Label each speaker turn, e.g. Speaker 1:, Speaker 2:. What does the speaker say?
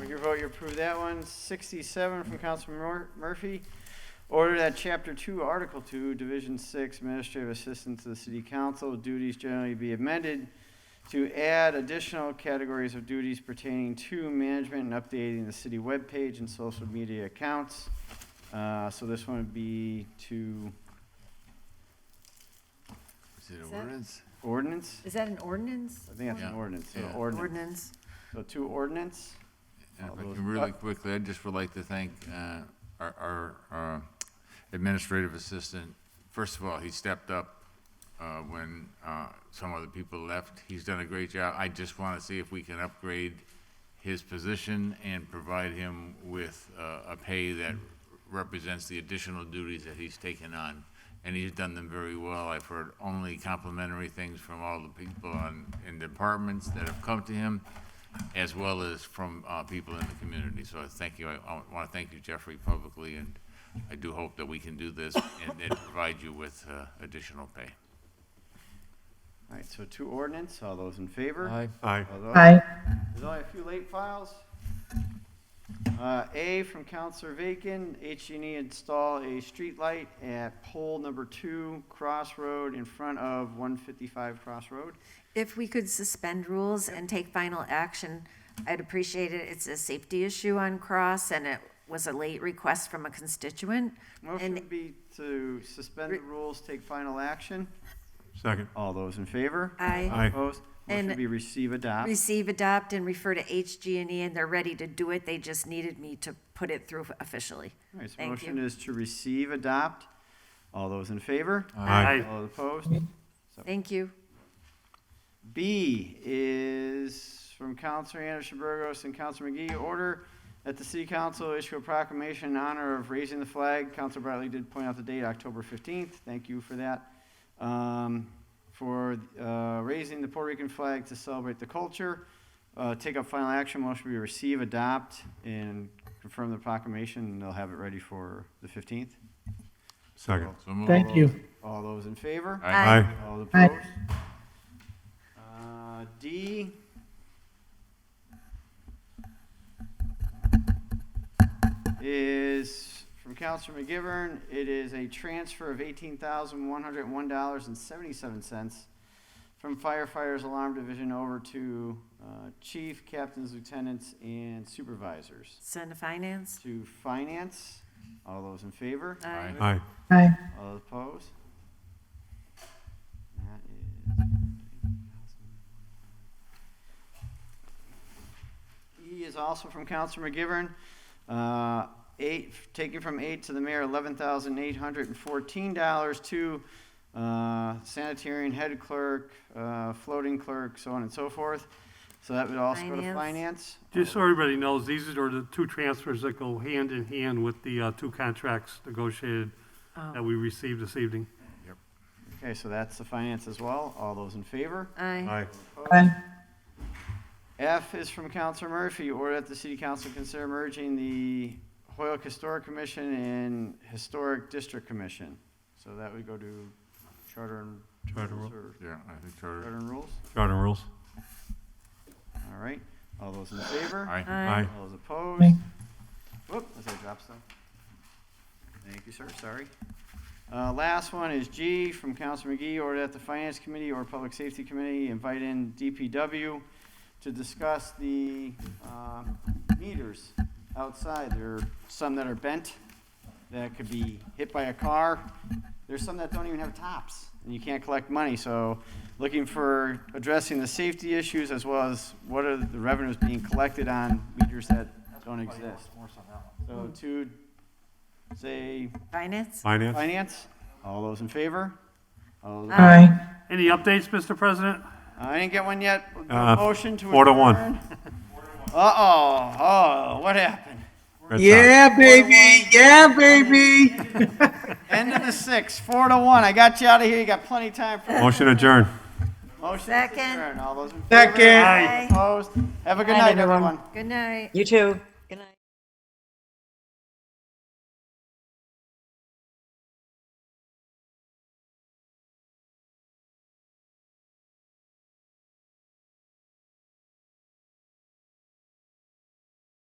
Speaker 1: With your vote, you approve that one. Sixty-seven from Councilman Mur- Murphy. Order that Chapter Two, Article Two, Division Six, Administrative Assistant to the City Council duties generally be amended to add additional categories of duties pertaining to management and updating the city webpage and social media accounts. Uh, so this one would be to
Speaker 2: Is it
Speaker 3: Is
Speaker 2: an
Speaker 3: that-
Speaker 2: ordinance?
Speaker 1: ordinance?
Speaker 3: Is that an ordinance?
Speaker 1: I think that's an
Speaker 2: Yeah.
Speaker 1: ordinance, so
Speaker 2: Yeah.
Speaker 1: ordinance.
Speaker 3: Ordinance.
Speaker 1: So two ordinance.
Speaker 2: And
Speaker 1: all
Speaker 2: If I
Speaker 1: those-
Speaker 2: can really quickly, I just would like to thank uh, our- our our uh, administrative assistant. First of all, he stepped up uh, when uh, some other people left. He's done a great job. I just want to see if we can upgrade his position and provide him with uh, a pay that represents the additional duties that he's taken on. And he's done them very well. I've heard only complimentary things from all the people on, in departments that have come to him, as well as from uh, people in the community. So I thank you. I, I want to thank you, Jeffrey, publicly, and I do hope that we can do this and, and provide you with uh, additional pay.
Speaker 1: All right, so two ordinance, all those in favor?
Speaker 4: Aye.
Speaker 1: All those- There's only a few late files. Uh, A from Counselor Vacan, H&E install a street light at pole number two, Crossroad, in front of 155 Crossroad.
Speaker 3: If we could suspend rules and take final action, I'd appreciate it. It's a safety issue on Cross, and it was a late request from a constituent.
Speaker 1: Motion
Speaker 3: And-
Speaker 1: would be to suspend the rules, take final action.
Speaker 4: Second.
Speaker 1: All those in favor?
Speaker 3: I
Speaker 4: Aye.
Speaker 1: Opposed? Motion
Speaker 3: And-
Speaker 1: would be receive, adopt.
Speaker 3: receive, adopt, and refer to HG&E, and they're ready to do it. They just needed me to put it through officially.
Speaker 1: All right, so
Speaker 3: Thank
Speaker 1: motion
Speaker 3: you.
Speaker 1: is to receive, adopt. All those in favor?
Speaker 4: Aye.
Speaker 1: All opposed?
Speaker 3: Thank you.
Speaker 1: B is from Counselor Anderson Burgos and Counselor McGee, order that the city council issue a proclamation in honor of raising the flag. Counselor Bartley did point out the date, October 15th. Thank you for that. Um, For uh, raising the Puerto Rican flag to celebrate the culture. Uh, Take up final action, motion be receive, adopt, and confirm the proclamation, and they'll have it ready for the 15th.
Speaker 4: Second.
Speaker 2: So move.
Speaker 5: Thank you.
Speaker 1: All those in favor?
Speaker 2: Aye.
Speaker 3: Aye.
Speaker 1: All
Speaker 5: Aye.
Speaker 1: opposed? Uh, D. Is from Counselor McGivern. It is a transfer of eighteen thousand one hundred one dollars and seventy-seven cents from firefighters alarm division over to, uh, chief, captains, lieutenants, and supervisors.
Speaker 3: Send to finance.
Speaker 1: To finance. All those in favor?
Speaker 3: Aye.
Speaker 4: Aye.
Speaker 5: Aye.
Speaker 1: All opposed? That is. E is also from Counselor McGivern. Uh, Eight, taking from eight to the mayor, eleven thousand eight hundred and fourteen dollars to uh, sanitarian head clerk, uh, floating clerk, so on and so forth. So that would also go to
Speaker 3: Finance.
Speaker 1: finance.
Speaker 6: Just so everybody knows, these are the two transfers that go hand in hand with the uh, two contracts negotiated that
Speaker 3: Oh.
Speaker 6: we received this evening.
Speaker 1: Okay, so that's the finance as well. All those in favor?
Speaker 3: Aye.
Speaker 4: Aye.
Speaker 5: Aye.
Speaker 1: F is from Counselor Murphy, order that the city council consider merging the Hoyoke Historic Commission and Historic District Commission. So that would go to Charter and.
Speaker 4: Charter
Speaker 1: Rules
Speaker 4: Rule.
Speaker 1: or-
Speaker 2: Yeah, I think Charter.
Speaker 1: Charter and Rules,
Speaker 4: Charter rules.
Speaker 1: all right. All those in favor?
Speaker 2: Aye.
Speaker 3: Aye.
Speaker 4: Aye.
Speaker 1: All those
Speaker 5: Aye.
Speaker 1: opposed? Whoop, as I drop stuff. Thank you, sir, sorry. Uh, last one is G from Counselor McGee, order that the Finance Committee or Public Safety Committee invite in DPW to discuss the, um, meters outside. There are some that are bent, that could be hit by a car. There's some that don't even have tops, and you can't collect money, so looking for addressing the safety issues as well as what are the revenues being collected on meters that don't exist. So to, say,
Speaker 3: Finance?
Speaker 4: Finance.
Speaker 1: finance, all those in favor? All those-
Speaker 5: Aye.
Speaker 6: Any updates, Mr. President?
Speaker 1: I didn't get one yet.
Speaker 4: Uh,
Speaker 1: Motion to adjourn.
Speaker 4: four to one.
Speaker 1: Uh-oh, oh, what happened?
Speaker 4: Red Sox.
Speaker 5: Yeah, baby. Yeah, baby.
Speaker 1: End of the six, four to one. I got you out of here. You got plenty of time for
Speaker 4: Motion adjourned.
Speaker 1: Motion to
Speaker 3: Second.
Speaker 1: adjourn. All those in favor?
Speaker 5: Second.
Speaker 6: Aye.
Speaker 1: Opposed? Have a good
Speaker 3: Aye,
Speaker 1: night,
Speaker 3: everyone.
Speaker 1: everyone.
Speaker 3: Good night.
Speaker 5: You too. Good night.